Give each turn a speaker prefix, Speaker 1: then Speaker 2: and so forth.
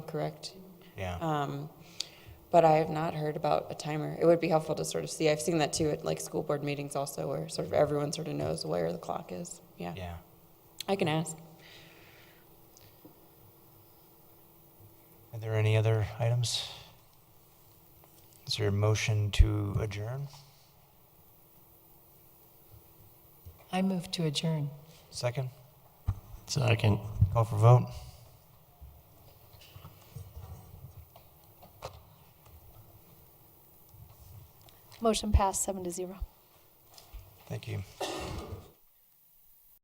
Speaker 1: correct?
Speaker 2: Yeah.
Speaker 1: Um, but I have not heard about a timer. It would be helpful to sort of see. I've seen that too at like school board meetings also where sort of everyone sort of knows where the clock is. Yeah.
Speaker 2: yeah.
Speaker 1: I can ask.
Speaker 2: Are there any other items? Is there a motion to adjourn?
Speaker 3: I move to adjourn.
Speaker 2: Second?
Speaker 4: Second.
Speaker 2: Call for vote?
Speaker 5: Motion passed seven to zero.
Speaker 2: Thank you.